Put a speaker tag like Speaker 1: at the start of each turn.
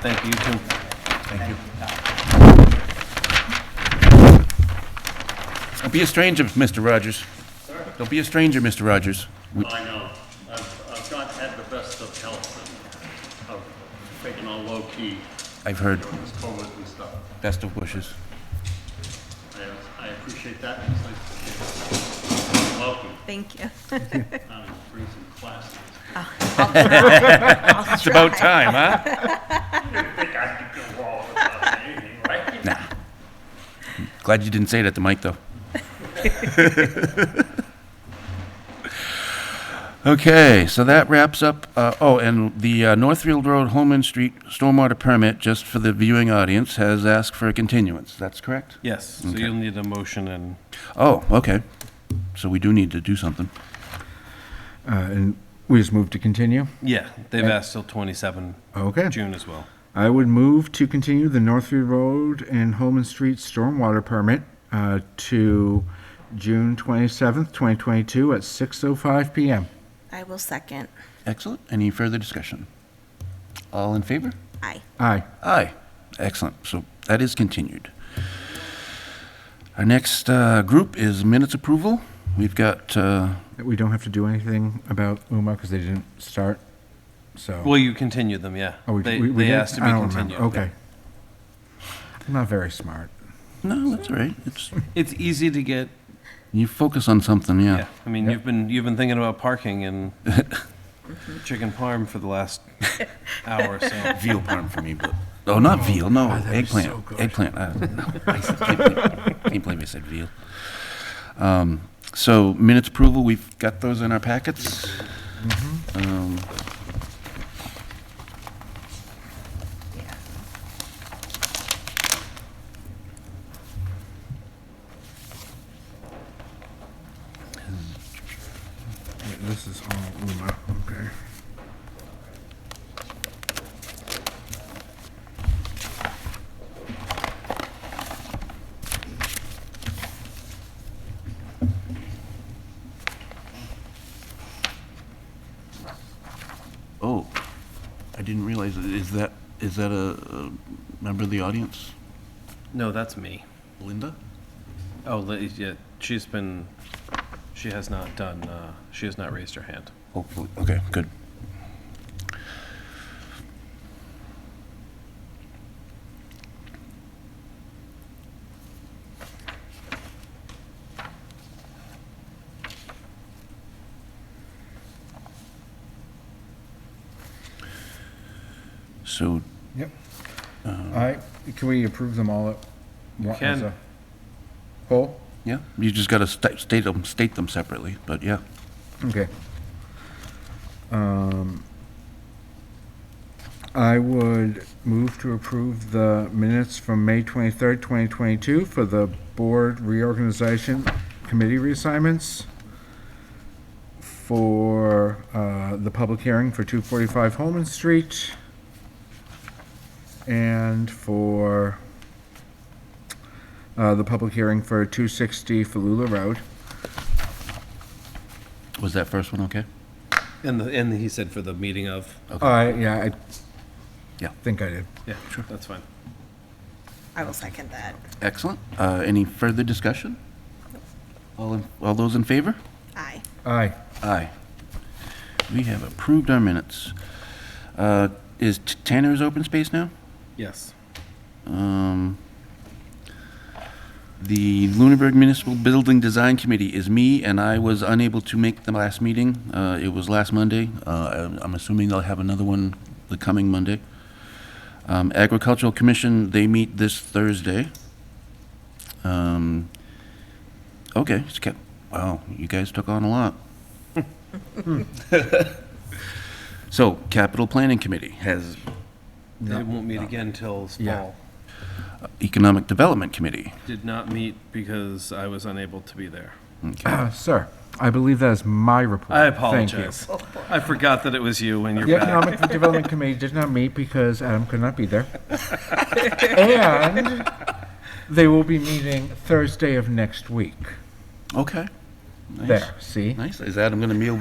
Speaker 1: Thank you, you too.
Speaker 2: Thank you.
Speaker 1: Don't be a stranger, Mr. Rogers. Don't be a stranger, Mr. Rogers. We-
Speaker 3: I know. I've, I've not had the best of health and I've taken on low key
Speaker 1: I've heard
Speaker 3: during this COVID and stuff.
Speaker 1: best of wishes.
Speaker 3: I, I appreciate that. It's nice to be welcome.
Speaker 4: Thank you.
Speaker 3: Uh, Bring some classes.
Speaker 1: It's about time, huh?
Speaker 3: I think I could go all without anything, right?
Speaker 1: Nah. Glad you didn't say it at the mic, though. Okay, so that wraps up, uh, oh, and the uh, Northfield Road Holman Street Stormwater Permit, just for the viewing audience, has asked for a continuance. That's correct?
Speaker 2: Yes, so you'll need a motion and
Speaker 1: Oh, okay. So we do need to do something.
Speaker 5: Uh, And we just move to continue?
Speaker 2: yeah, they've asked till 27
Speaker 5: Okay.
Speaker 2: June as well.
Speaker 5: I would move to continue the Northview Road and Holman Street stormwater permit uh, to June 27th, 2022 at 6:05 PM.
Speaker 4: I will second.
Speaker 1: Excellent. Any further discussion? All in favor?
Speaker 4: Aye.
Speaker 5: Aye.
Speaker 1: Aye. Excellent. So that is continued. Our next uh, group is minutes approval. We've got, uh,
Speaker 5: We don't have to do anything about UMA because they didn't start, so.
Speaker 2: Well, you continue them, yeah.
Speaker 5: Oh, we-
Speaker 2: They,
Speaker 5: we- we
Speaker 2: they
Speaker 5: did?
Speaker 2: asked to be
Speaker 5: I don't
Speaker 2: continued.
Speaker 5: remember. Okay. I'm not very smart.
Speaker 1: no, that's all right. It's,
Speaker 2: It's easy to get,
Speaker 1: you focus on something,
Speaker 2: yeah,
Speaker 1: yeah.
Speaker 2: I mean, you've been, you've been thinking about parking and chicken parm for the last hour, so.
Speaker 1: Veal parm for me, but, oh, not veal, no,
Speaker 5: God, Ah, that was so
Speaker 1: eggplant.
Speaker 5: good.
Speaker 1: Eggplant. uh, no, I said- can't believe- Can't believe I said veal. Um, So minutes approval, we've got those in our packets. Um,
Speaker 4: Yeah.
Speaker 5: Wait, This is all UMA, okay.
Speaker 1: Oh, I didn't realize, is that, is that a a member of the audience?
Speaker 2: No, that's me.
Speaker 1: Linda?
Speaker 2: Oh, li- yeah, she's been, she has not done, uh, she has not raised her hand.
Speaker 1: Hopefully, okay, good. So,
Speaker 5: Yep. All right, can we approve them all at? You
Speaker 2: can.
Speaker 5: Whole?
Speaker 1: yeah, you just gotta sta- state them, state them separately, but yeah.
Speaker 5: Okay. Um, I would move to approve the minutes from May 23rd, 2022 for the board reorganization committee reassignments for uh, the public hearing for 245 Holman Street and for uh, the public hearing for 260 Falula Road.
Speaker 1: Was that first one okay?
Speaker 2: And the, and he said for the meeting of,
Speaker 5: Uh, yeah, I
Speaker 1: Yeah.
Speaker 5: think I did.
Speaker 2: yeah, sure, that's fine.
Speaker 4: I will second that.
Speaker 1: Excellent. Uh, any further discussion? All, in- all those in favor?
Speaker 4: Aye.
Speaker 5: Aye.
Speaker 1: Aye. We have approved our minutes. Uh, Is T- Tanner's open space now?
Speaker 2: Yes.
Speaker 1: Um, The Lunenburg Municipal Building Design Committee is me, and I was unable to make the last meeting. Uh, It was last Monday. Uh, I'm- I'm assuming they'll have another one the coming Monday. Um, Agricultural Commission, they meet this Thursday. Um, Okay, it's kept, wow, you guys took on a lot. So, Capital Planning Committee has
Speaker 2: They won't meet again till
Speaker 5: Yeah.
Speaker 2: fall.
Speaker 1: Economic Development Committee.
Speaker 2: Did not meet because I was unable to be there.
Speaker 5: Uh, Sir, I believe that is my report.
Speaker 2: I
Speaker 5: Thank you.
Speaker 2: apologize. I forgot that it was you when you're
Speaker 5: The
Speaker 2: back.
Speaker 5: Economic Development Committee did not meet because Adam could not be there. And they will be meeting Thursday of next week.
Speaker 1: Okay. Nice.
Speaker 5: There, see?
Speaker 1: Nice. Is Adam going to meal